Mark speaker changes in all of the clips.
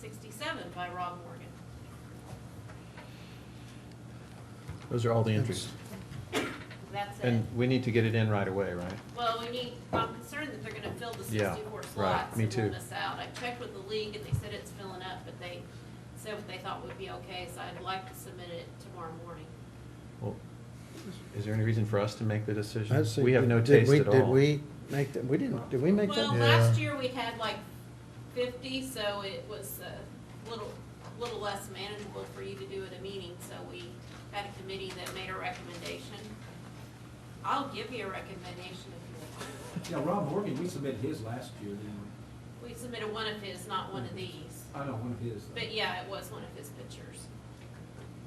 Speaker 1: sixty-seven by Rob Morgan.
Speaker 2: Those are all the entries.
Speaker 1: That's it.
Speaker 2: And we need to get it in right away, right?
Speaker 1: Well, we need, I'm concerned that they're gonna fill the
Speaker 2: Yeah,
Speaker 1: sixty-four slots.
Speaker 2: right, me
Speaker 1: and let
Speaker 2: too.
Speaker 1: us out. I checked with the league and they said it's filling up, but they said what they thought would be okay, so I'd like to submit it tomorrow morning.
Speaker 2: Well, is there any reason for us to make the decision?
Speaker 3: I'd say,
Speaker 2: We have
Speaker 3: did-
Speaker 2: no
Speaker 3: did
Speaker 2: taste
Speaker 3: we-
Speaker 2: at all.
Speaker 3: Did we make that, we didn't, did we make that?
Speaker 1: Well,
Speaker 2: Yeah.
Speaker 1: last year we had like fifty, so it was a little, little less manageable for you to do at a meeting, so we had a committee that made a recommendation. I'll give you a recommendation if you
Speaker 4: Yeah, Rob Morgan, we submitted his last year, didn't we?
Speaker 1: want. We submitted one of his, not one of these,
Speaker 4: I know, one of his.
Speaker 1: but yeah, it was one of his pictures.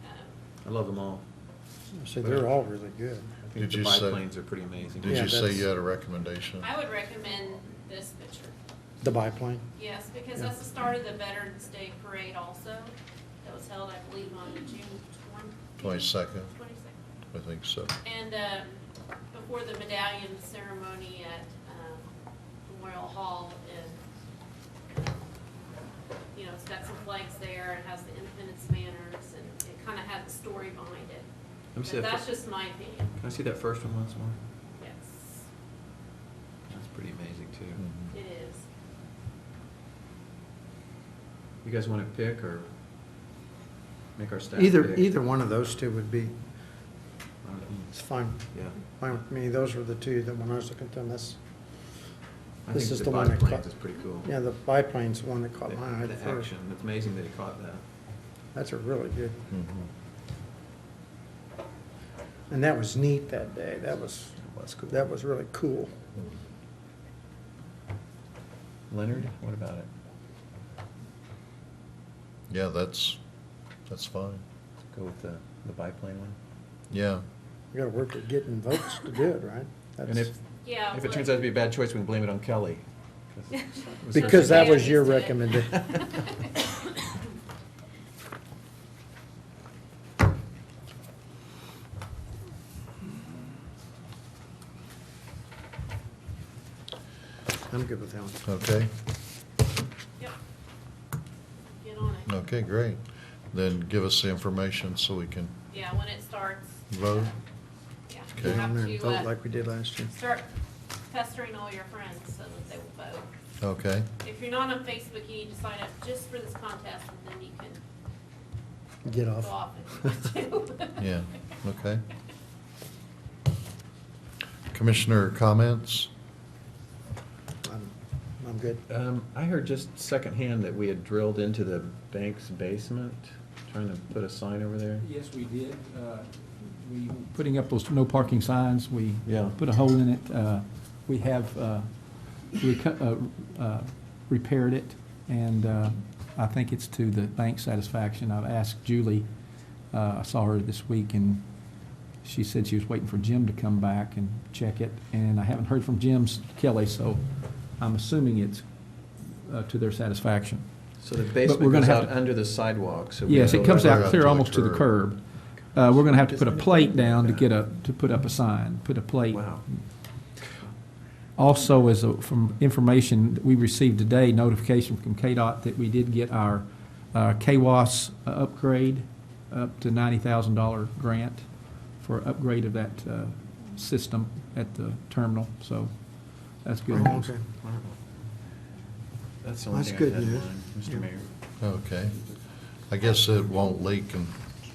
Speaker 1: Um,
Speaker 2: I love them all.
Speaker 3: See, they're all really good.
Speaker 2: I think
Speaker 5: Did
Speaker 2: the
Speaker 5: you say-
Speaker 2: biplanes are pretty amazing.
Speaker 5: Did
Speaker 3: Yeah,
Speaker 5: you say
Speaker 3: that's-
Speaker 5: you had a recommendation?
Speaker 1: I would recommend this picture,
Speaker 3: The biplane.
Speaker 1: yes, because that's the start of the Veterans Day Parade also, that was held, I believe, on June
Speaker 5: Twenty-second,
Speaker 1: Twenty-second.
Speaker 5: I think so.
Speaker 1: And um, before the medallion ceremony at um, Memorial Hall, and, you know, it's got some flags there, it has the Independence banners, and it kind of had the story behind it.
Speaker 2: Let me
Speaker 1: But
Speaker 2: see that
Speaker 1: that's
Speaker 2: fir-
Speaker 1: just my opinion,
Speaker 2: Can I see that first one once more?
Speaker 1: yes,
Speaker 2: That's pretty amazing too.
Speaker 5: Mhm.
Speaker 1: it is.
Speaker 2: You guys want to pick or make our staff pick?
Speaker 3: Either, either one of those two would be, it's fine,
Speaker 2: Yeah.
Speaker 3: fine with me. Those were the two that when I was looking at them, that's,
Speaker 2: I
Speaker 3: This
Speaker 2: think
Speaker 3: is the one that
Speaker 2: biplanes is
Speaker 3: caught-
Speaker 2: pretty cool.
Speaker 3: yeah, the biplane's the one that
Speaker 2: The
Speaker 3: caught my eye
Speaker 2: the
Speaker 3: first.
Speaker 2: action, it's amazing that he caught that.
Speaker 3: That's a really good,
Speaker 5: Mhm.
Speaker 3: and that was neat that day. That was,
Speaker 2: That's cool.
Speaker 3: that was really cool.
Speaker 2: Leonard, what about it?
Speaker 5: Yeah, that's, that's fine.
Speaker 2: Go with the, the biplane one?
Speaker 5: Yeah,
Speaker 3: You gotta work at getting votes to do it, right?
Speaker 2: And
Speaker 3: That's
Speaker 2: if,
Speaker 1: Yeah.
Speaker 2: if it
Speaker 1: well-
Speaker 2: turns out to be a bad choice, we can blame it on Kelly. was
Speaker 3: Because
Speaker 2: her-
Speaker 3: that was your
Speaker 1: Yeah, I used to it.
Speaker 3: I'm good with that one.
Speaker 2: Oh,
Speaker 5: okay,
Speaker 1: Yep. Get on it.
Speaker 5: okay, great. Then give us the information so we can
Speaker 1: Yeah, when it starts.
Speaker 5: vote.
Speaker 1: Yeah, you
Speaker 5: Okay.
Speaker 3: Get on
Speaker 1: have
Speaker 3: there and
Speaker 1: to uh,
Speaker 3: vote like we did last year.
Speaker 1: start pestering all your friends so that they will vote.
Speaker 5: Okay,
Speaker 1: If you're not on Facebook, you need to sign up just for this contest and then you can
Speaker 3: Get
Speaker 1: go
Speaker 3: off.
Speaker 1: off if you want to.
Speaker 5: yeah, okay. Commissioner comments?
Speaker 3: I'm, I'm good.
Speaker 2: Um, I heard just secondhand that we had drilled into the bank's basement, trying to put a sign over there.
Speaker 4: Yes, we did. Uh, We, putting up those no parking signs, we
Speaker 2: Yeah.
Speaker 4: put a hole in it. Uh, We have, uh, we cut- uh, uh, repaired it, and uh, I think it's to the bank's satisfaction. I've asked Julie, uh, I saw her this week, and she said she was waiting for Jim to come back and check it, and I haven't heard from Jim Kelly, so I'm assuming it's uh, to their satisfaction.
Speaker 2: So the
Speaker 4: But we're
Speaker 2: basement
Speaker 4: gonna
Speaker 2: goes
Speaker 4: have
Speaker 2: out
Speaker 4: to-
Speaker 2: under the sidewalk, so. we
Speaker 4: Yes,
Speaker 2: know
Speaker 4: it comes
Speaker 2: that-
Speaker 5: Right
Speaker 4: out
Speaker 5: up to
Speaker 4: clear
Speaker 5: the
Speaker 4: almost to the
Speaker 5: curb.
Speaker 4: curb. Uh, we're gonna have to put a plate down to get a, to put up a sign, put a plate.
Speaker 2: Wow.
Speaker 4: Also, as a, from information that we received today, notification from KDOT that we did get our, uh, KWAS upgrade up to ninety thousand dollar grant for upgrade of that, uh, system at the terminal, so that's good
Speaker 3: Oh,
Speaker 4: news.
Speaker 3: okay.
Speaker 2: That's the only
Speaker 3: That's
Speaker 2: thing
Speaker 3: good
Speaker 2: I had in
Speaker 3: news.
Speaker 2: mind,
Speaker 3: Yeah.
Speaker 2: Mr. Mayor.
Speaker 5: Okay. I guess it won't leak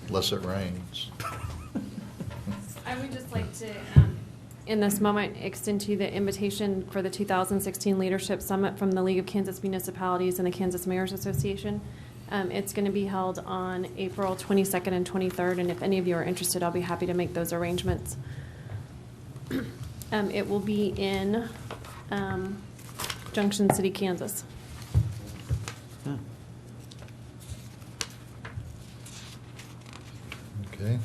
Speaker 5: unless it rains.
Speaker 6: I would just like to, um, in this moment, extend to you the invitation for the 2016 Leadership Summit from the League of Kansas Municipalities and the Kansas Mayor's Association. Um, It's going to be held on April 22nd and 23rd, and if any of you are interested, I'll be happy to make those arrangements. Um, It will be in um, Junction City, Kansas.
Speaker 5: Okay,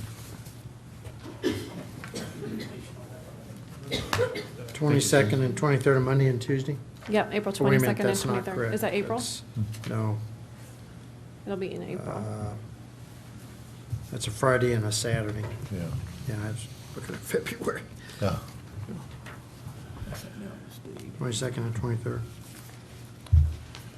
Speaker 3: Twenty-second and twenty-third of Monday and Tuesday?
Speaker 6: Yep, April
Speaker 3: Wait a
Speaker 6: 22nd
Speaker 3: minute,
Speaker 6: and
Speaker 3: that's not
Speaker 6: 23rd.
Speaker 3: correct.
Speaker 6: Is that April?
Speaker 3: That's- No.
Speaker 6: It'll be in April.
Speaker 3: Uh, That's a Friday and a Saturday.
Speaker 5: yeah,
Speaker 3: Yeah, I was looking at February,
Speaker 5: yeah.
Speaker 3: twenty-second and twenty-third.